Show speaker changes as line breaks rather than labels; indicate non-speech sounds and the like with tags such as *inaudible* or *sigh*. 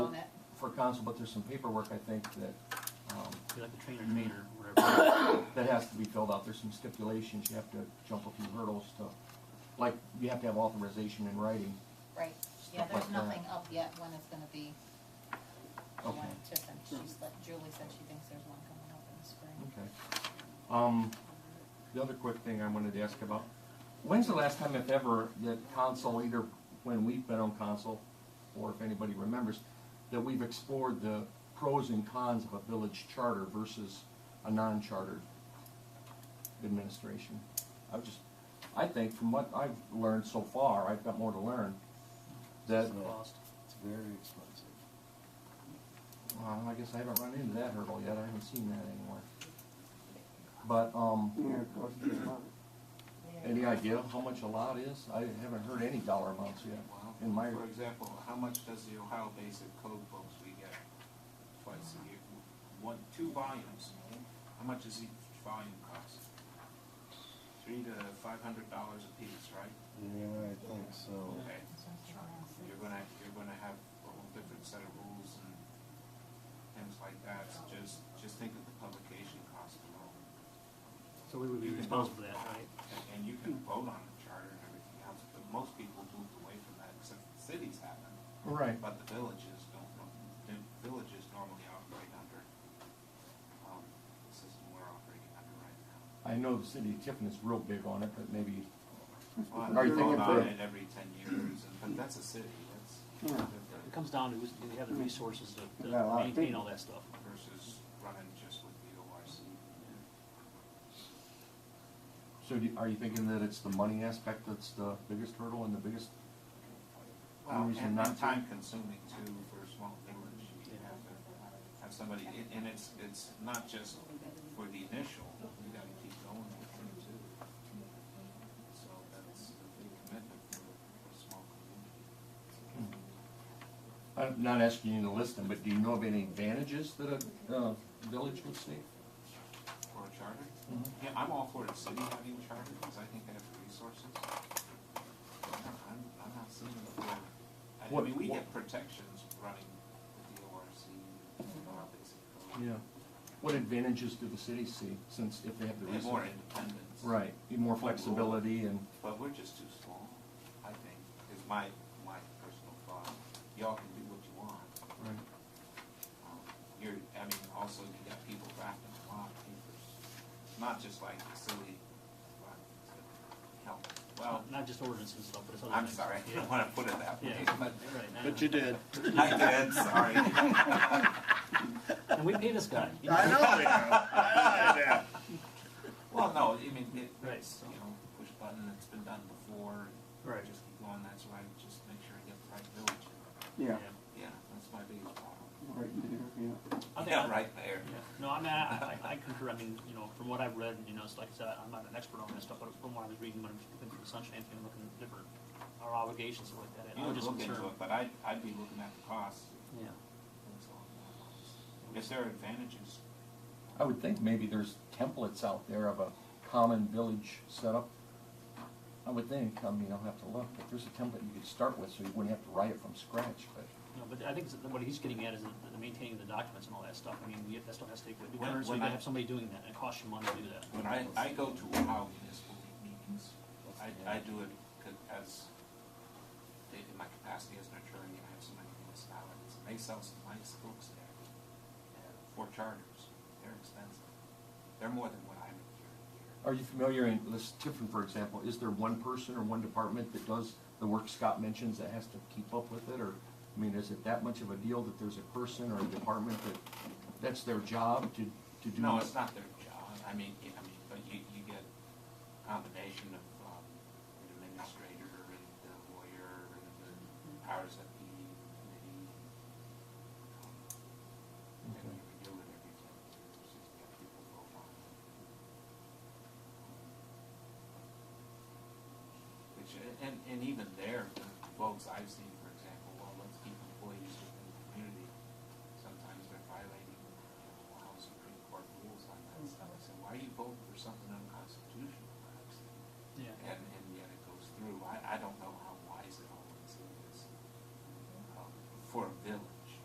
council, but there's some paperwork, I think, that, um,
You're like the trainer meter, whatever.
that has to be filled out. There's some stipulations. You have to jump a few hurdles to, like, you have to have authorization in writing.
Right, yeah,
Stuff
there's
like that.
nothing up yet when it's gonna be, she
Okay.
wanted to, send- she's, let- Julie said she thinks there's one coming up in the spring.
Okay. Um, the other quick thing I wanted to ask about, when's the last time, if ever, that council, either when we've been on council, or if anybody remembers, that we've explored the pros and cons of a village charter versus a non-chartered administration? I was just, I think from what I've learned so far, I've got more to learn, that,
It's cost.
It's very expensive.
well, I guess I haven't run into that hurdle yet, I haven't seen that anywhere. But, um,
Yeah, it costs you money.
Any idea how much a lot is? I haven't heard any dollar amounts yet in my,
For example, how much does the Ohio Basic Code books we get twice a year? One, two volumes, how much does each volume cost? Three to five hundred dollars a piece, right?
Yeah, I think so.
Okay, you're gonna, you're gonna have a whole different set of rules and things like that, so just, just think of the publication cost alone.
So we would be responsible for that, right?
And, and you can vote on the charter and everything else, but most people moved away from that, except the cities haven't.
right,
But the villages don't, the villages normally operate under, um, the system we're operating under right now.
I know the city of Tiffin is real big on it, but maybe,
Well,
Are you
they're
thinking
on
for-
it every ten years, and- but that's a city, that's
Yeah.
It
different
comes down to who's, do they have the resources to-
Yeah, a
to
lot of
maintain
people.
all that stuff?
versus running just with the ORC.
so do- are you thinking that it's the money aspect that's the biggest hurdle and the biggest?
Well,
Reason
and,
not
and
to.
time consuming too for a small village, you have to have somebody, and- and it's, it's not just for the initial, you gotta keep going with them too. So that's a big commitment for, for a small community.
I'm not asking you to list them, but do you know of any advantages that a, uh, village would see?
For a charter?
Mm-hmm.
Yeah, I'm all for the city having a charter, because I think they have the resources. I'm, I'm not seeing it for, I
What-
mean, we
what-
get protections running with the ORC, and all this.
Yeah. What advantages do the cities see, since if they have the
They're more
resources?
independence.
Right, more flexibility and,
But we're just too small, I think, is my, my personal thought. Y'all can do what you want.
right,
Um, You're, I mean, also you got people drafting a lot of papers, not just like the city, but the health. Well,
Not just ordinances and stuff, but it's other
I'm
things.
sorry, *laughs* I
Yeah.
didn't want to put it that way,
Yeah.
but
You're *laughs* right.
But you did.
I did, sorry. *laughs*
And we pay this guy.
*laughs* know.
Well, no, I mean, it,
Right.
it's, you know, push button, it's been done before.
Right.
Just keep going, that's why, I just make sure I get the right village.
Yeah,
Yeah, that's my biggest problem.
right there, yeah.
I think
Yeah,
I-
right there.
Yeah. No, I mean, I, I I concur, I mean, you know, from what I've read, you know, it's like I said, I'm not an expert on this stuff, but from what I was reading, when I was looking through the sunshine, and looking at different, our obligations and like that, I
You
was
would
just
look into
concerned.
it, but I'd, I'd be looking at the costs.
Yeah.
That's all I'm If there are advantages,
I would think maybe there's templates out there of a common village setup. I would think, I mean, I'll have to look, but there's a template you could start with, so you wouldn't have to write it from scratch, but.
No, but I think that what he's getting at is the- the maintaining the documents and all that stuff, I mean, you- that stuff has to take,
When-
currently, so
when
you
I-
gotta have somebody doing that, and it costs you money to do that.
when I, I go to Ohio municipal meetings, I, I do it c- as, in my capacity as an attorney, I have so many municipalities, and they sell some nice books there. uh, For charters, they're expensive, they're more than what I make here a year.
Are you familiar, in let's, Tiffin, for example, is there one person or one department that does the work Scott mentions that has to keep up with it, or, I mean, is it that much of a deal that there's a person or a department that, that's their job to, to do?
No, it's not their job, I mean, yeah, I mean, but you, you get a combination of, um, an administrator and the lawyer and the powers that be committee. um, And
Okay.
you do it every ten years, you've got people go on. Which, and, and even there, the votes I've seen um,